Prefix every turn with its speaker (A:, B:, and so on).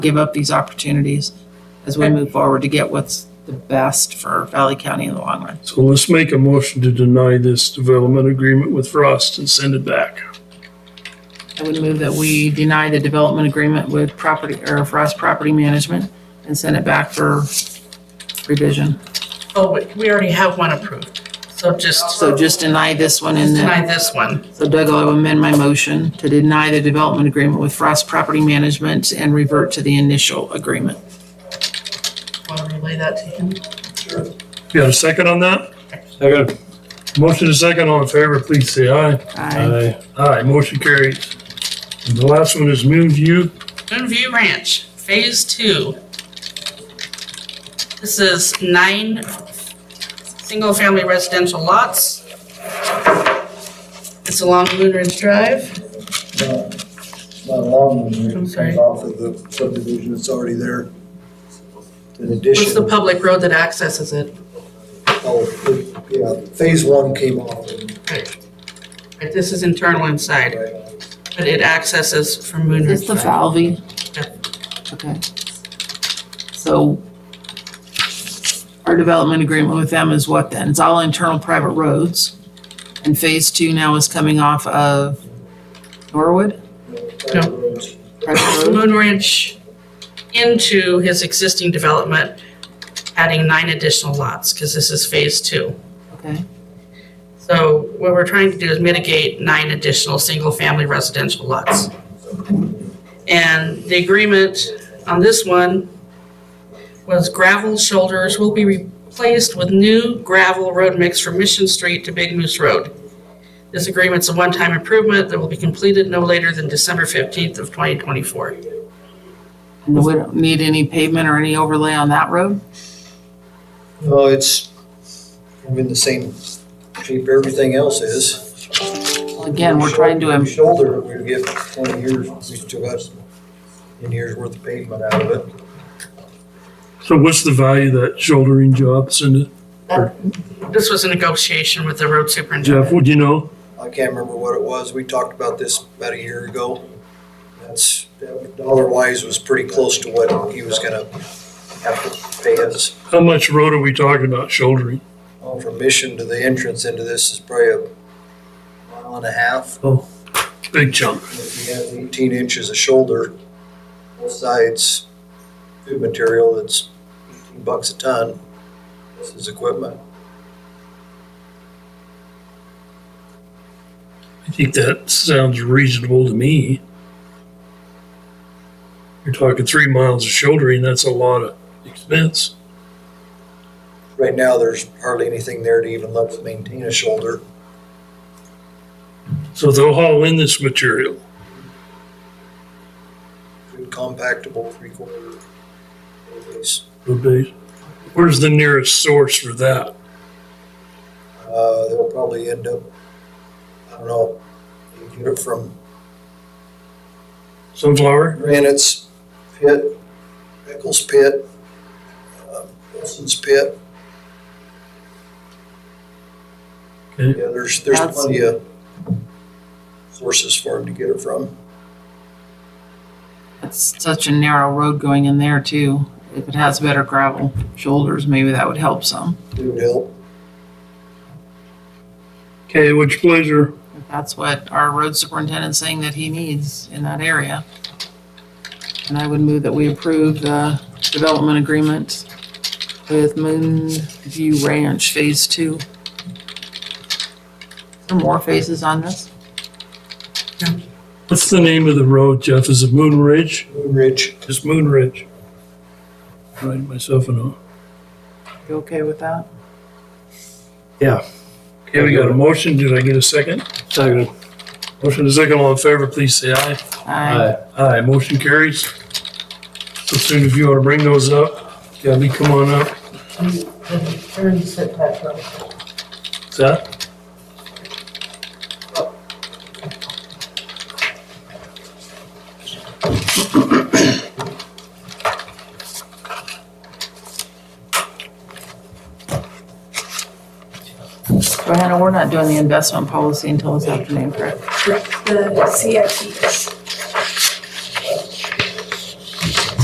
A: give up these opportunities as we move forward to get what's the best for Valley County in the long run.
B: So let's make a motion to deny this development agreement with Frost and send it back.
A: I would move that we deny the development agreement with property, or Frost Property Management and send it back for revision.
C: Oh, wait, we already have one approved, so just
A: So just deny this one and then,
C: deny this one.
A: so Doug, I'll amend my motion to deny the development agreement with Frost Property Management and revert to the initial agreement.
C: Want to relay that to him?
B: You got a second on that? Second. Motion to second, all in favor, please say aye.
A: Aye.
B: Aye, motion carries. And the last one is Moonview.
C: Moonview Ranch, Phase Two. This is nine single-family residential lots. It's along Moon Ridge Drive.
D: Not long, it
C: I'm sorry.
D: comes off of the subdivision that's already there. In
C: What's the
D: addition,
C: public road that accesses it?
D: oh, the- yeah, phase one came off. and-
C: Right, Right, this is internal inside,
D: right,
C: but it accesses from Moon
A: It's
C: Ridge
A: the
C: Drive.
A: Valvey? Okay. So our development agreement with them is what then? It's all internal private roads. And phase two now is coming off of Norwood?
C: No.
D: private roads.
A: Private road?
C: Moon Ridge into his existing development, adding nine additional lots, because this is Phase Two.
A: Okay,
C: So what we're trying to do is mitigate nine additional single-family residential lots. And the agreement on this one was gravel shoulders will be replaced with new gravel road mix from Mission Street to Big Moose Road. This agreement's a one-time improvement that will be completed no later than December 15th of 2024.
A: and we don't need any pavement or any overlay on that road?
D: No, it's, I'm in the same shape everything else is.
A: Well, Again, we're trying to, im-
D: Shoulder, we get twenty years, we still got ten years worth of pavement out of it.
B: So what's the value of that shouldering job, Cindy?
C: This was a negotiation with the road
B: Jeff,
C: superintendent.
B: would you know?
D: I can't remember what it was. We talked about this about a year ago. That's, that dollar wise was pretty close to what he was gonna have to pay us.
B: How much road are we talking about shouldering?
D: Oh, From Mission to the entrance into this is probably a mile and a half.
B: Big chunk.
D: If you have eighteen inches of shoulder, both sides, food material that's eighteen bucks a ton. This is equipment.
B: I think that sounds reasonable to me. You're talking three miles of shouldering, that's a lot of expense.
D: Right now, there's hardly anything there to even let us maintain a shoulder.
B: So they'll haul in this material.
D: Good compactable three quarter.
B: would be. Where's the nearest source for that?
D: Uh, they'll probably end up, I don't know, you get it from
B: Sunflower?
D: Granite's pit, Pickles pit, uh, Wilson's pit.
B: Okay.
D: Yeah, there's, there's
A: That's-
D: plenty of sources for him to get it from.
A: it's such a narrow road going in there too. If it has better gravel shoulders, maybe that would help some,
D: It would help.
B: Okay, which pleasure.
A: if that's what our road superintendent's saying that he needs in that area. And I would move that we approve the development agreement with Moonview Ranch Phase Two. There more phases on this?
B: What's the name of the road, Jeff? Is it Moon Ridge?
D: Moon Ridge,
B: It's Moon Ridge. Writing myself a note.
A: You okay with that?
B: Okay, we got a motion. Did I get a second?
E: Second.
B: Motion is second. All in favor, please say aye.
A: Aye.
B: Aye, motion carries. So soon if you want to bring those up, Gabby, come on up. Is that?
A: So Hannah, we're not doing the investment policy until this afternoon, correct?
F: the CIP is